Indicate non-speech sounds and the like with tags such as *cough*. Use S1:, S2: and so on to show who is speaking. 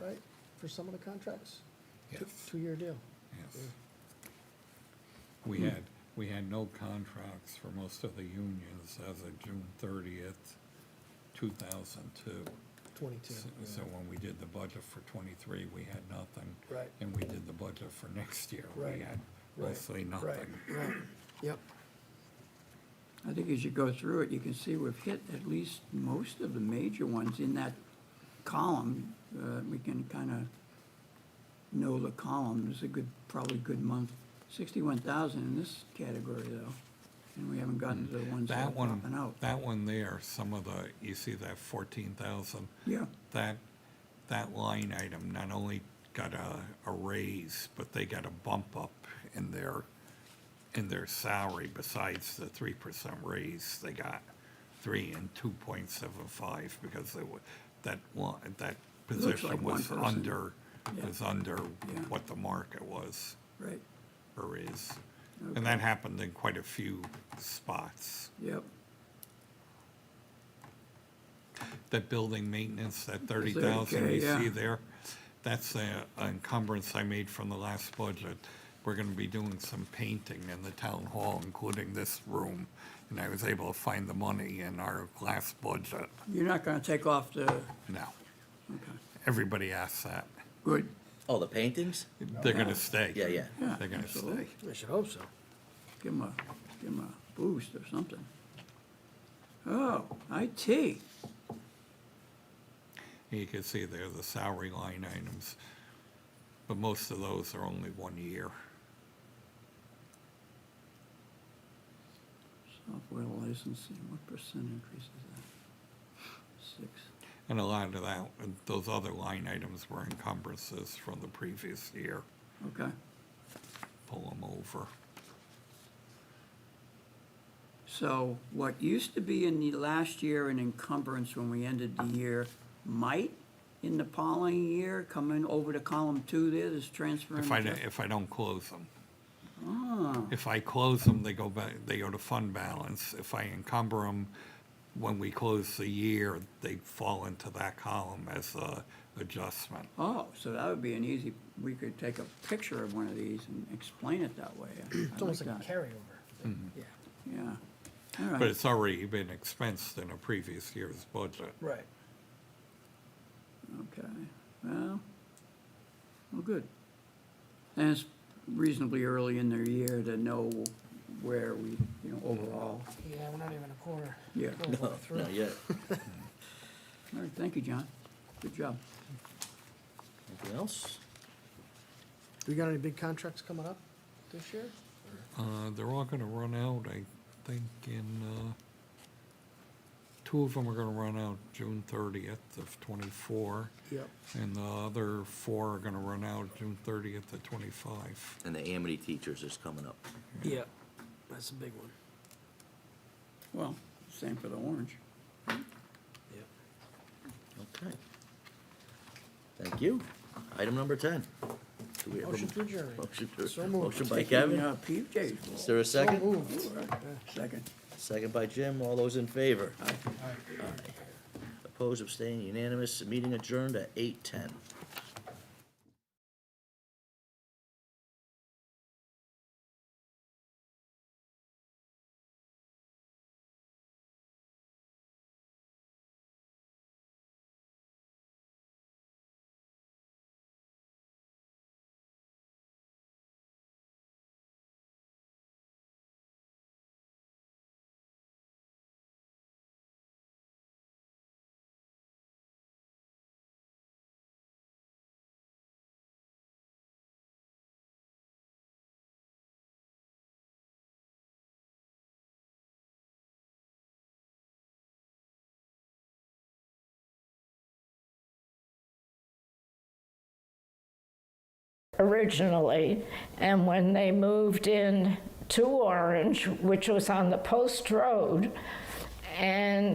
S1: for some of the contracts?
S2: Yeah.
S1: Two- Two-year deal.
S2: Yes.
S1: Hmm.
S2: We had, we had no contracts for most of the unions as of June thirtieth, two thousand two.
S1: 22.
S2: So when we did the budget for twenty-three, we had nothing.
S1: Right.
S2: And we did the budget for next year,
S1: Right,
S2: we had
S1: right,
S2: mostly
S1: Right,
S2: nothing.
S1: right, yep,
S3: I think as you go through it, you can see we've hit at least most of the major ones in that column. Uh, We can kind of know the column. It's a good, probably good month. Sixty-one thousand in this category though, and we haven't gotten to the ones that are
S2: Mm, That
S3: popping
S2: one,
S3: out.
S2: that one there, some of the, you see that fourteen thousand?
S3: Yeah,
S2: That, that line item not only got a, a raise, but they got a bump up in their, in their salary besides the three percent raise they got. Three and two point seven five because they were, that one, that
S3: looks
S2: position
S3: like one
S2: was
S3: person.
S2: under,
S3: Yeah.
S2: was under
S3: Yeah.
S2: what the market was
S3: right,
S2: or is. And that happened in quite a few spots.
S3: yep.
S2: that building maintenance, that thirty
S3: 30K,
S2: thousand you
S3: yeah.
S2: see there, that's a a encumbrance I made from the last budget. We're gonna be doing some painting in the town hall, including this room, and I was able to find the money in our last budget
S3: You're not gonna take off the,
S2: now.
S3: okay,
S2: Everybody asks that.
S3: good,
S4: Oh, the paintings?
S2: They're gonna stay.
S4: Yeah, yeah.
S3: yeah.
S2: They're gonna
S3: absolutely.
S2: stay.
S1: I should hope so.
S3: Give them a, give 'em a boost or something. Oh, IT,
S2: You can see there the salary line items, but most of those are only one year.
S3: software licensing, what percent increase is that? Six,
S2: And a lot of that, those other line items were encumbrances from the previous year.
S3: okay.
S2: pull them over.
S3: So what used to be in the last year an encumbrance when we ended the year might in the following year come in over to column two there, this transfer.
S2: If
S3: and
S2: I,
S3: adjust-
S2: if I don't close them.
S3: Ah,
S2: If I close them, they go back, they go to fund balance. If I encumber them, when we close the year, they fall into that column as a adjustment.
S3: Oh, so that would be an easy, we could take a picture of one of these and explain it that way. I- I
S1: *clears throat* It's almost
S3: like
S1: like a
S3: that.
S1: carryover.
S4: Mm-hmm.
S1: Yeah,
S3: Yeah, all
S2: But
S3: right,
S2: it's already been expensed in a previous year's budget.
S1: right.
S3: okay, well, well, good. And it's reasonably early in their year to know where we, you know, overall.
S1: Yeah, we're not even a quarter.
S3: Yeah.
S1: quarter
S4: No,
S1: through.
S4: not yet.
S3: All right, thank you, John. Good job.
S4: Anything else?
S1: We got any big contracts coming up this year?
S2: Uh, they're all gonna run out, I think, in, uh, two of them are gonna run out June thirtieth of twenty-four,
S1: Yep.
S2: and the other four are gonna run out June thirtieth of twenty-five.
S4: And the Amity teachers is coming up.
S1: Yep, that's a big one.
S3: Well, same for the orange.
S1: Yep.
S4: Okay. Thank you. Item number ten. Do we have a
S1: Motion to adjourn.
S4: Motion to-
S1: So moved.
S4: motion by
S3: Yeah,
S4: Kevin.
S3: PJ's.
S4: Is there a
S1: So
S4: second?
S1: moved.
S3: Second.
S4: Second by Jim. All those in favor? Aye. Opposed, abstaining, unanimous. Meeting adjourned at eight ten.
S5: originally, and when they moved in to Orange, which was on the Post Road, and